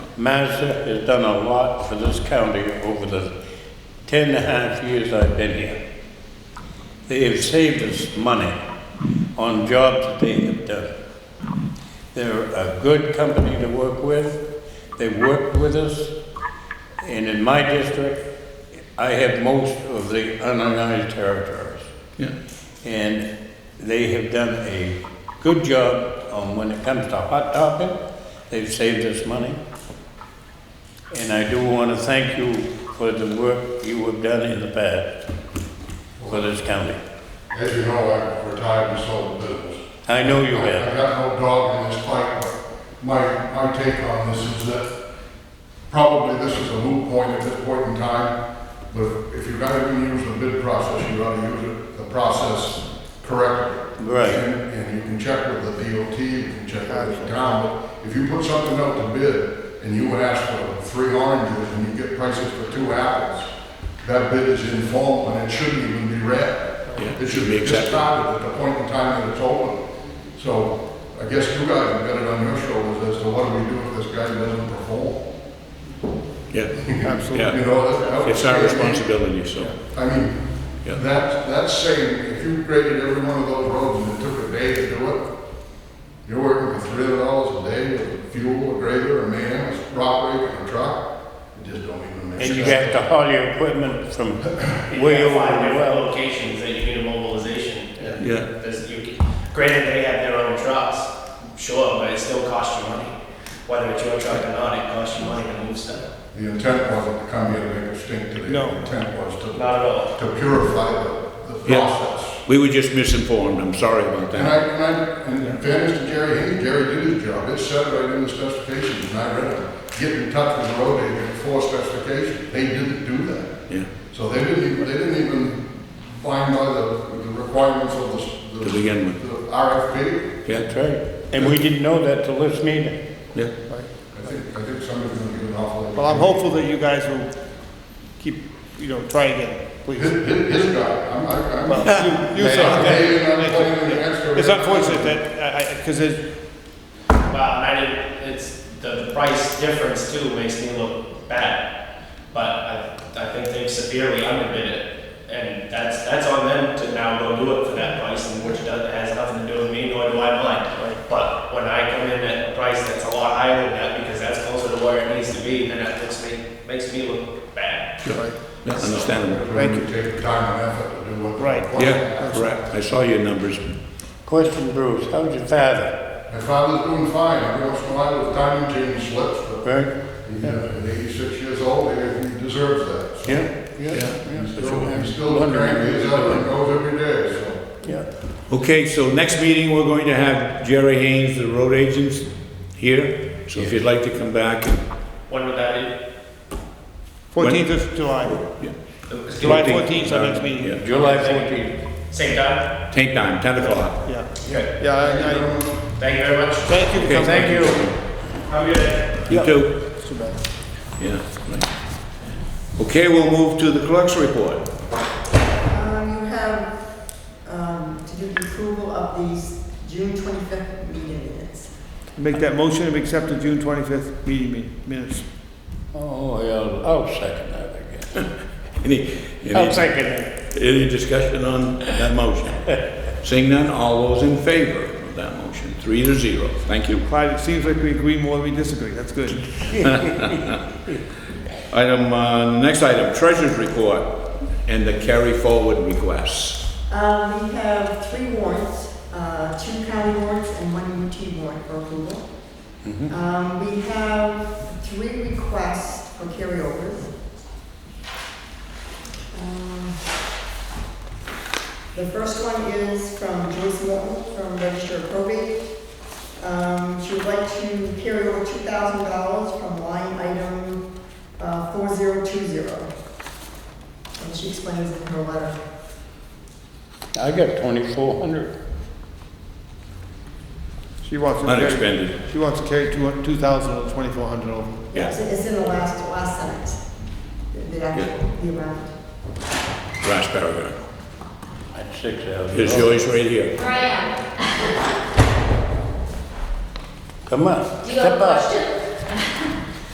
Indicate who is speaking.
Speaker 1: Mazda has done a lot for this county over the ten and a half years I've been here. They have saved us money on jobs that they have done. They're a good company to work with. They worked with us. And in my district, I have most of the unorganized territories.
Speaker 2: Yeah,
Speaker 1: And they have done a good job on when it comes to hot topping. They've saved us money. And I do want to thank you for the work you have done in the past for this county.
Speaker 3: As you know, I retired and sold the business.
Speaker 1: I know you have.
Speaker 3: I got no dog in this fight, but my, my take on this is that probably this is a moot point at this point in time, but if you're gonna use the bid process, you gotta use it, the process correctly.
Speaker 1: Right.
Speaker 3: And, and you can check with the DOT, you can check with the town, but if you put something out to bid and you would ask for three oranges and you get prices for two apples, that bid is informal and it shouldn't even be read. It should be just started at the point in time that it's open. So I guess you guys have got it on your shoulders as to what do we do if this guy doesn't perform?
Speaker 2: yeah,
Speaker 3: You
Speaker 2: yeah.
Speaker 3: know, that- that would
Speaker 2: It's our
Speaker 3: scare me.
Speaker 2: responsibility, so,
Speaker 3: I mean,
Speaker 2: Yeah.
Speaker 3: that, that's saying, if you graded every one of those roads and it took a day to do it, you're working for three hundred dollars a day with fuel, a grader, a man, a rock rake, and a truck, it just don't even make sense.
Speaker 1: And you have to haul your equipment from way over
Speaker 4: Five
Speaker 1: the
Speaker 4: different
Speaker 1: well.
Speaker 4: locations that you get a mobilization. and
Speaker 2: Yeah.
Speaker 4: there's- you can- Granted, they have their own trucks, sure, but it still costs you money. Whether it's your truck or not, it costs you money to move stuff.
Speaker 3: The intent wasn't to come here to make a stink today.
Speaker 2: No.
Speaker 3: The intent was to,
Speaker 4: Not at all.
Speaker 3: to purify the, the
Speaker 2: Yeah.
Speaker 3: process.
Speaker 2: we were just misinformed, I'm sorry about
Speaker 3: And I,
Speaker 2: that.
Speaker 3: and I, and in fairness to Jerry Hayes, Jerry did his job, it said right in the specifications, and I read it. Get in touch with the road agent for specifications, they didn't do that.
Speaker 2: Yeah,
Speaker 3: So they didn't even, they didn't even find by the, the requirements of the. the-
Speaker 2: To begin with.
Speaker 3: The RFP.
Speaker 2: yeah,
Speaker 1: That's right. And we didn't know that till this meeting.
Speaker 2: yeah.
Speaker 3: I think, I think somebody's gonna get an awful.
Speaker 5: Well, I'm hopeful that you guys will keep, you know, try again,
Speaker 3: His,
Speaker 5: please.
Speaker 3: his, his guy, I'm, I'm.
Speaker 5: Well, you, you said
Speaker 3: Hey, I'm playing against
Speaker 5: that.
Speaker 3: her.
Speaker 5: It's unfortunate that, I, I, because it,
Speaker 4: Well, and I didn't, it's, the the price difference too makes me look bad. But I, I think they've severely underbid it. And that's, that's on them to now go do it for that price, and which does, has nothing to do with me, nor do I mind. But when I come in at a price that's a lot higher than that, because that's closer to where it needs to be, then that looks me, makes me look bad.
Speaker 2: Yeah, Yeah, understandable.
Speaker 3: Thank you. Take the time and effort to do what.
Speaker 5: Right.
Speaker 2: Yeah, correct, I saw your numbers.
Speaker 1: Question, Bruce, how's your father?
Speaker 3: My father's doing fine, every once in a while, the timing change slips, but
Speaker 1: Right?
Speaker 3: he's uh, eighty-six years old, he he deserves that.
Speaker 1: Yeah, yeah, yeah.
Speaker 3: Still, he's still cranky as hell and goes every day, so.
Speaker 1: Yeah.
Speaker 2: Okay, so next meeting, we're going to have Jerry Haynes, the road agents, here. So if you'd like to come back,
Speaker 4: When would that
Speaker 5: fourteenth of July,
Speaker 2: yeah.
Speaker 4: be?
Speaker 5: July fourteenth, our next meeting,
Speaker 2: Yeah.
Speaker 1: July 14th.
Speaker 4: Same time?
Speaker 2: Take time, 10 o'clock.
Speaker 5: yeah.
Speaker 4: Okay.
Speaker 5: Yeah, I, I,
Speaker 4: Thank you very much.
Speaker 5: thank you for
Speaker 2: Okay,
Speaker 5: coming.
Speaker 2: thank you.
Speaker 4: Have a good day.
Speaker 2: You too.
Speaker 5: It's too bad.
Speaker 2: Yeah. right. Okay, we'll move to the clerk's report.
Speaker 6: Um, You have, um, to do the approval of these June 25th meeting minutes.
Speaker 5: Make that motion and accept the June twenty-fifth meeting min- minutes.
Speaker 1: Oh, yeah, I'll second that, I guess.
Speaker 2: Any,
Speaker 1: I'll
Speaker 5: Oh,
Speaker 2: any,
Speaker 1: second it.
Speaker 2: any discussion on that motion? Seeing none, all those in favor of that motion, three to zero. Thank you.
Speaker 5: Clyde, it seems like we agree more than we disagree, that's good.
Speaker 2: Item, uh, next item, treasurer's report and the carry forward requests.
Speaker 6: Um, We have three warrants, uh, two county warrants and one UT warrant for approval. Um, We have three requests for carryovers. Um, The first one is from Joyce Morton from Register of Probate. Um, She would like to carry over $2,000 from line item uh, 4020. And she explains in her letter.
Speaker 1: I got 2,400.
Speaker 5: She wants to carry,
Speaker 2: Unexpended,
Speaker 5: she wants to carry two, two thousand or twenty-four hundred over.
Speaker 2: Yeah.
Speaker 6: It's it's in the last, last sentence, the- the actual, the amount.
Speaker 2: last paragraph.
Speaker 1: That's 6,000.
Speaker 2: Here's yours right here.
Speaker 7: Where I am.
Speaker 1: Come on,
Speaker 7: Do you have
Speaker 1: step
Speaker 7: a
Speaker 1: up.
Speaker 7: question?